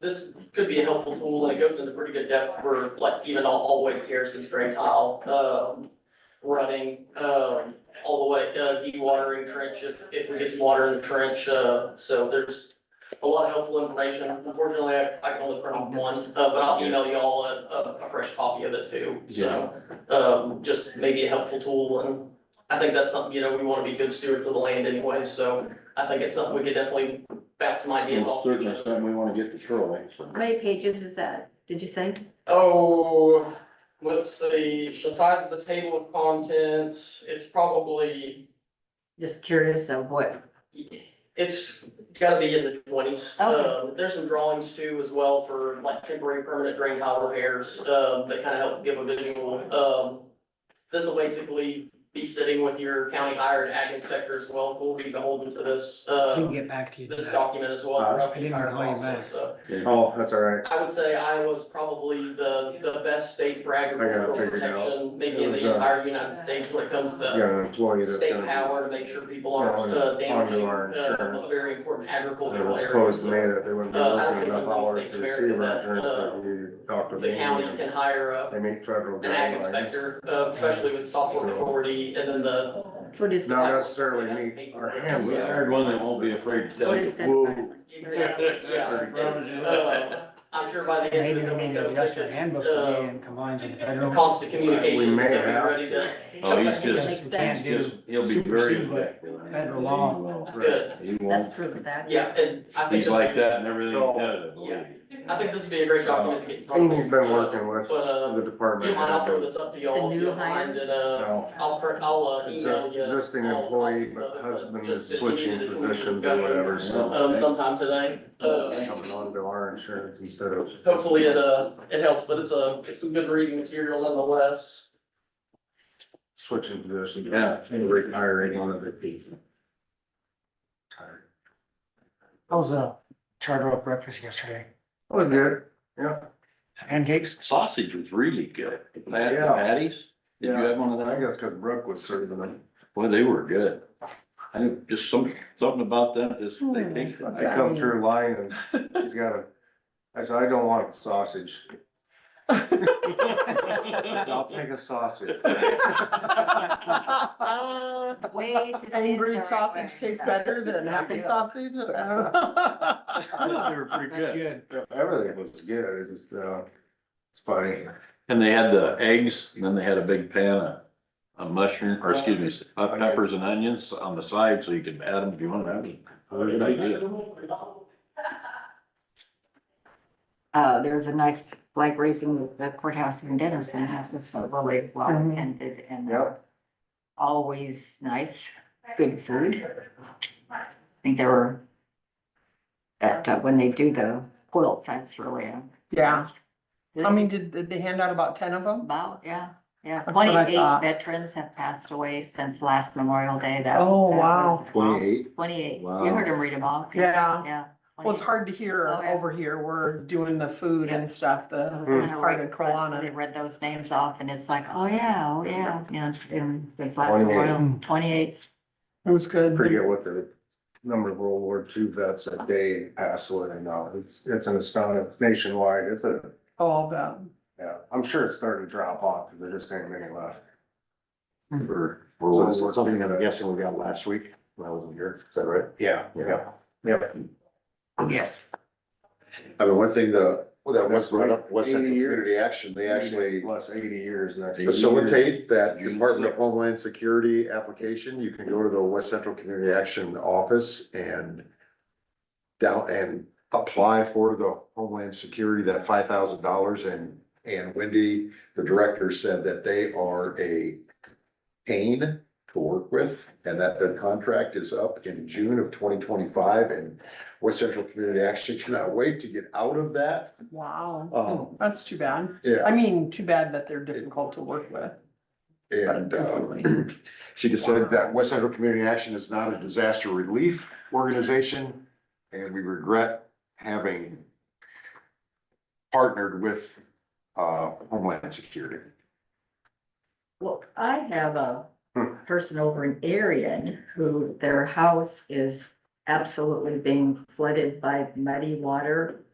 this could be a helpful tool, and it goes into pretty good depth for like even all, all the way to Harrison's drain tile, um, running, um, all the way, uh, dewatering trench, if, if we get some water in the trench, uh, so there's a lot of helpful information, unfortunately, I, I can only print off one, uh, but I'll email y'all a, a, a fresh copy of it too, so. Um, just maybe a helpful tool, and I think that's something, you know, we wanna be good stewards of the land anyway, so I think it's something we could definitely bat some ideas Well, off. Certainly something we wanna get to Shirley. so. How many pages is that, did you say? Oh, let's see, besides the table of contents, it's probably, Just curious of what, it's gotta be in the twenties. Okay. Um, there's some drawings too as well for like temporary permanent drain tile repairs, um, that kind of help give a visual. Um, this will basically be sitting with your county hired ag inspector as well, we'll be beholden to this, I can uh, get back to you. this document as well. Uh, throughout the I didn't entire call you process, back. So. Oh, that's all right. I would say Iowa's probably the, the best state for agricultural I gotta figure it out. protection, maybe in It was, the uh, entire United States when it comes You to got an employee that's state gonna. power to make sure people aren't Yeah, uh, on damaging our uh, a insurance. very important It agricultural was supposed to me area. that they wouldn't be Uh, I looking don't enough think hours it's to America, receive but, our insurance, but you talked to uh, The county me. can hire a, They meet federal an ag guidelines. inspector, uh, especially with software authority and then the. what is, Not necessarily meet our We handbook. hired one that won't be afraid to tell what you. is that? Whoa. filing? Yeah. Uh, I'm sure by the end Maybe of it, it'll will be be the so sick adjustment handbook will be of, in combined with the uh, federal. constant communication, may they'll be have- ready to, Oh, he's Because just, we can't do, just, he'll be very. Supersede what objective. federal He law. will. good, He That's won't, proof of that. yeah, and I think. he's this- like that and everything he So- does, I believe. I think this would be a great document to get. in front of Um, Amy's been you. working with But, uh, the You department. mind, I'll throw this up to y'all The if new you don't hire? mind, and, uh, No, I'll, per- I'll uh, it's a email you. existing all employee, copies but of it, husband is just if you switching needed it, positions we've or got it, whatever, so. Um, sometime today, uh, Coming on to our insurance instead of. hopefully it, uh, it helps, but it's a, it's some good reading material nonetheless. Switching positions. Yeah. And retiring one of the people. Tired. I was a charter oak breakfast yesterday. Oh, good, yeah. Pancakes, Sausage was really good. The pat- the Yeah. Patties, did you Yeah. have one of I those? guess because Brooke was serving them. Boy, they were good. I think just some, something about them, just they tasted. I like- come through line and he's got a, I said, I don't want sausage. I'll take a sausage. Way to see Angry it's the right sausage way. tastes better than happy Yeah. sausage. I don't know. I thought They were pretty that's good. good. Everything was good, it's just, uh, it's funny. And they had the eggs, and then they had a big pan of, of mushroom, or excuse me, s- uh, peppers and onions on the side, so you could add them if you want. That was a good idea. Uh, there was a nice flag raising with the courthouse in Denison, that was really well Mhm. attended and uh, Yep, always nice, good food. I think there were, that, uh, when they do the quilts, that's really a. Yeah, nice- I mean, did, did they hand out about ten of them? About, yeah, yeah. That's what I Twenty-eight thought. veterans have passed away since last Memorial Day. That. Oh, that wow. was- uh, twenty-eight, Twenty-eight. You Wow. heard them read them all. Yeah. Yeah. Well, it's hard to hear Oh, yeah. Uh-huh. over here. We're doing the food Yeah. and stuff, the And I part read- of They Kelowna. read those names off and it's like, oh, yeah, oh, yeah, you know, and it's last 28. Memorial, twenty-eight. It was good. forget what the number of World War II vets that day passed away now, it's, it's an astounding nationwide, it's a, All about, yeah, I'm sure it's starting to drop off, because there just ain't many left. Or, or was it something that I'm guessing we got last week when I wasn't here, is that right? Yeah, yeah, yeah. Yes. I mean, one thing, the, well, that was That's right. brought up, was that 80 years. community action, they actually Plus eighty years next. facilitate that June Department of sixth. Homeland Security application, you can go to the West Central Community Action Office and down and apply for the Homeland Security, that five thousand dollars and, and Wendy, the director said that they are a pain to work with and that their contract is up in June of twenty twenty-five and West Central Community Action cannot wait to get out of that. wow, Um, that's too bad. I yeah, mean, too bad that they're difficult to work with. and, uh, Definitely. She just said that West Central Community Action is not a disaster relief organization, and we regret having partnered with uh, Homeland Security. Well, I have a Hmm. person over in Arion who their house is absolutely being flooded by muddy water.